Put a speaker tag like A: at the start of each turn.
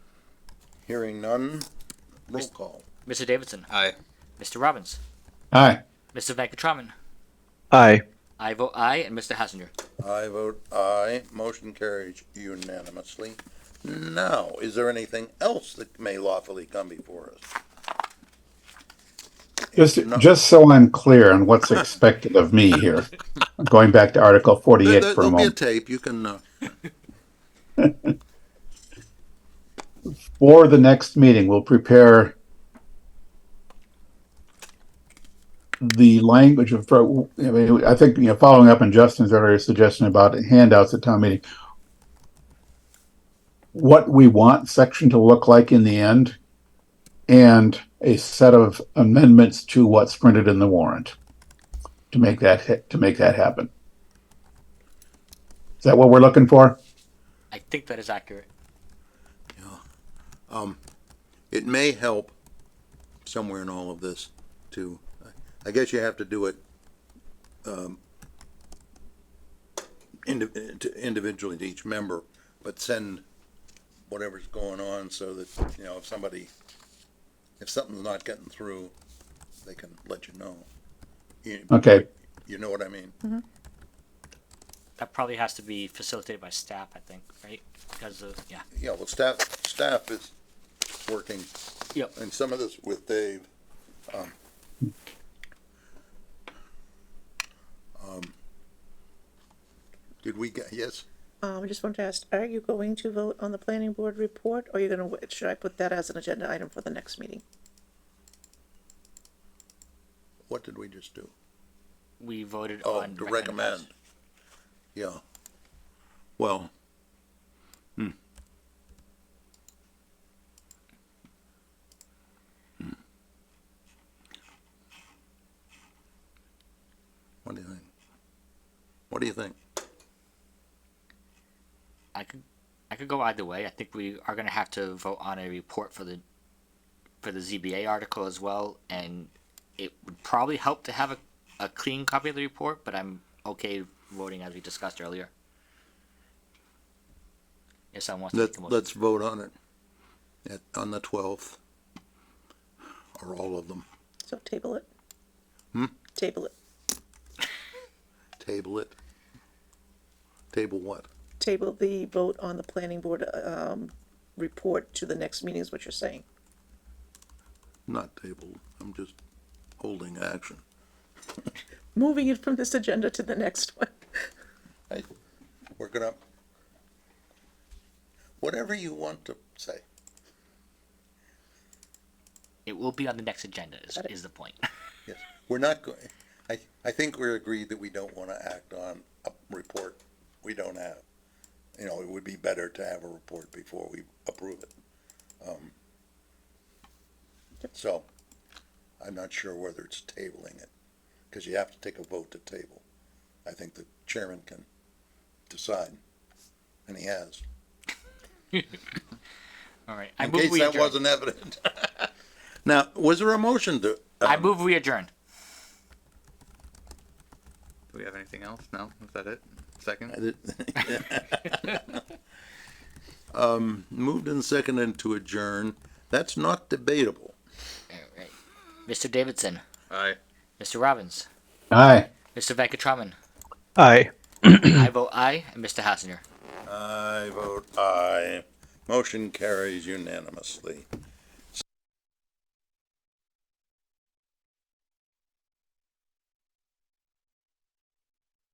A: Hearing none, roll
B: Mis-
A: call.
B: Mr. Davidson,
C: Aye.
B: Mr. Robbins,
D: Aye.
B: Mr. Venkataraman,
D: Aye.
B: I vote aye, and Mr. Hassinger.
A: I vote aye, motion carries unanimously. Now, is there anything else that may lawfully come before us?
D: Just,
A: No.
D: just so I'm clear on what's expected of me here, going back to Article
A: There-
D: 48
A: there-
D: for a
A: There'll be a
D: moment.
A: tape, you can, uh,
D: For the next meeting, we'll prepare the language of, I mean, I think, you know, following up on Justin's earlier suggestion about handouts at town meeting, what we want section to look like in the end and a set of amendments to what's printed in the warrant to make that, ha- to make that happen. Is that what we're looking for?
B: I think that is accurate.
A: it may help somewhere in all of this to, I guess you have to do it, um, indi- to- individually to each member, but send whatever's going on so that, you know, if somebody, if something's not getting through, they can let you know. You-
D: Okay,
A: You know what I mean?
B: That probably has to be facilitated by staff, I think, right? Because of, yeah.
A: Yeah, well, staff, staff is working.
B: Yep.
A: And some of this with Dave. um, um, Did we get, yes,
E: Um, I just wanted to ask, are you going to vote on the planning board report, or you're gonna, wa- should I put that as an agenda item for the next meeting?
A: what did we just do?
B: We voted
A: Oh,
B: on.
A: to recommend. Yeah. Well. hmm. Hmm. What do you think? What do you think?
B: I could, I could go either way. I think we are going to have to vote on a report for the, for the ZBA article as well, and it would probably help to have a, a clean copy of the report, but I'm okay voting as we discussed earlier. If someone wants to make
A: Let,
B: a motion.
A: let's vote on it at, on the twelfth. Or all of them.
E: So table it.
A: Hmm?
E: Table it,
A: Table it. Table what?
E: table the vote on the planning board, um, report to the next meeting is what you're saying.
A: Not table. I'm just holding action.
E: Moving it from this agenda to the next one.
A: We're gonna, whatever you want to say.
B: It will be on the next agenda is,
E: Got it.
B: is the point.
A: Yes, we're not going, I, I think we're agreed that we don't want to act on a report we don't have. You know, it would be better to have a report before we approve it. Um, So, I'm not sure whether it's tabling it, because you have to take a vote to table. I think the chairman can decide, and he has.
B: All right. I
A: In
B: move
A: case
B: we
A: that
B: adjourn.
A: wasn't evident. Now, was there a motion to?
B: I
A: um,
B: move we adjourn.
C: Do we have anything else? No? Is that it? Second?
A: Um, moved and seconded to adjourn. That's not debatable.
B: All right. Mr. Davidson,
C: Aye.
B: Mr. Robbins,
D: aye.
B: Mr. Venkatraman,
D: Aye.
B: I vote aye, and Mr. Hassinger.
A: I vote aye. Motion carries unanimously.